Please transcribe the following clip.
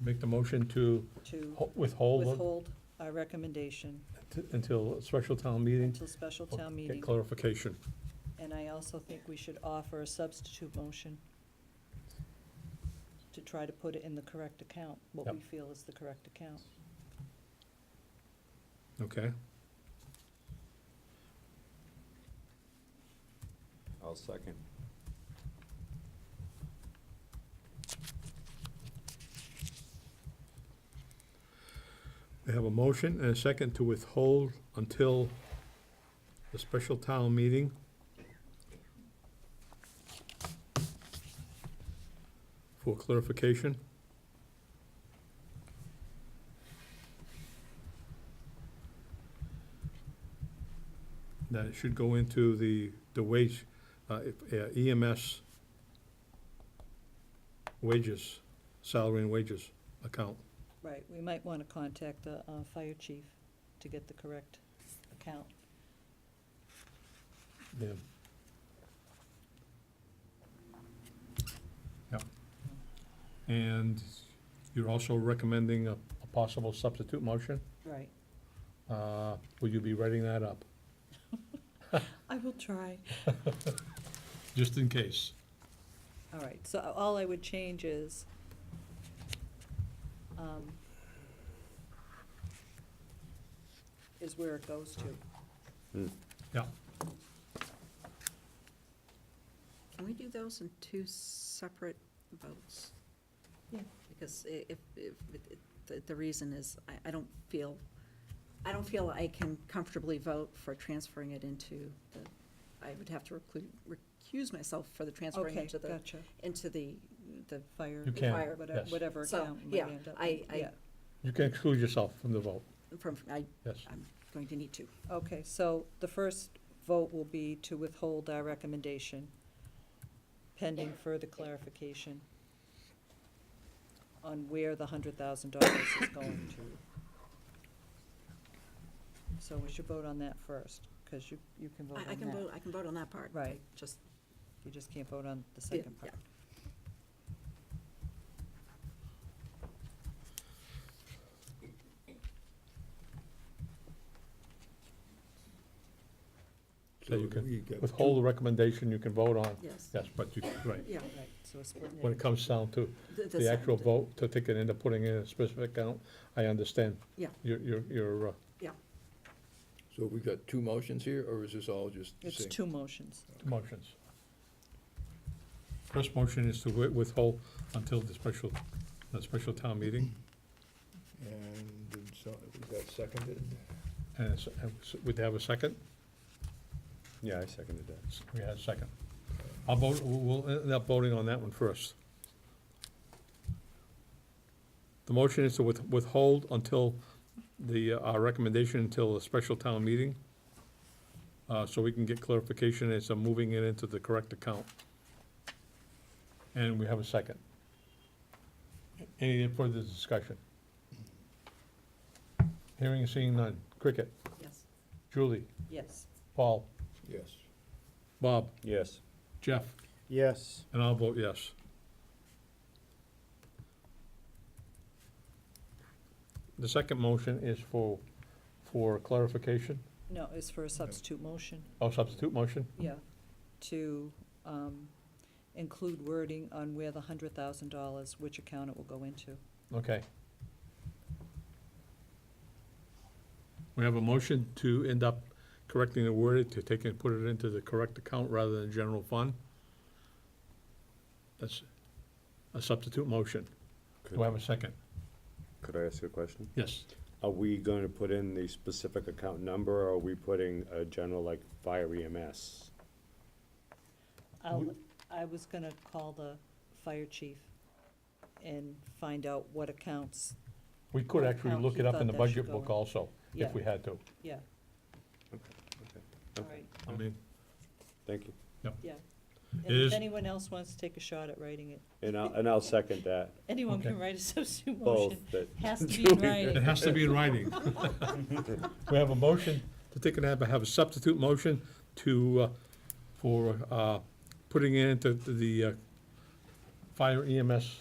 make the motion to to ho- withhold withhold our recommendation t- until a special town meeting, until special or town get meeting. clarification. And I also think we should offer a substitute motion to try to put it in the correct account, what Yep. we feel is the correct account. Okay, I'll second. we have a motion and a second to withhold until the special town meeting. For clarification. That it should go into the, the wage, uh, if- uh, EMS wages, salary and wages account. Right, we might want to contact the uh, fire chief to get the correct account. Yeah. Yep. And you're also recommending a, a possible substitute motion? Right, Uh, will you be writing that up, I will try. just in case? All right, so all I would change is, um, is where it goes to. Yeah, Can we do those in two separate votes? Yeah. Because i- if, if, it- it- the, the reason is, I, I don't feel, I don't feel I can comfortably vote for transferring it into the, I would have to reclu- recuse myself for the transferring Okay, into the, gotcha. into the, the Fire. You can, fire, whatever- yes. Whatever So, account. we yeah, end up I- in. I- Yeah. you can exclude yourself from the vote, from, I, yes. I'm going to need to. Okay, so the first vote will be to withhold our recommendation pending further clarification on where the hundred thousand dollars is going to. So we should vote on that first, because you, you can vote on I, that. I can vote, I can vote on that part. Right. Just, You just can't vote on the yeah, second part. So you can You get Withhold the recommendation you can vote on, yes, yes, but you, right, yeah. Right, so we're splitting when it it. comes down to the actual second- vote, to take it into putting in a specific account, I understand. Yeah. Your, your, your, uh, So we got two motions here, or is this all just the It's same? two motions. Motions. First motion is to wi- withhold until the special, the special town meeting, And did some, was that seconded? and s- and s- would they have a second? Yeah, I seconded that. S- We had a second. I'll vote, we'll we'll end up voting on that one first. The motion is to with- withhold until the, uh, our recommendation until a special town meeting, uh, so we can get clarification as to moving it into the correct account. And we have a second. Any further discussion? Hearing and seeing none. Cricket, Yes, Julie, Yes, Paul, Yes. Bob, Yes. Jeff. Yes. And I'll vote yes. The second motion is for, for clarification, no, it's for a substitute motion. oh, substitute motion? Yeah, to um, include wording on where the hundred thousand dollars, which account it will go into. Okay. We have a motion to end up correcting the word, to take and put it into the correct account rather than general fund. That's a substitute motion. Do I have a second? Could I ask a question? Yes. Are we going to put in the specific account number, or are we putting a general, like, fire E EMS? I'll, I was gonna call the fire chief and find out what accounts, We could actually Account look he it up thought in the that should budget go book in. also, yeah, if we had to. yeah. All right, I mean, Thank you. yeah. It And if is- anyone else wants to take a shot at writing it, And I'll, and I'll second that, anyone can Okay. write a substitute both, motion, that, has to be in It writing. has to be in writing. We have a motion to take and have, have a substitute motion to, uh, for, uh, putting it into the, uh, fire EMS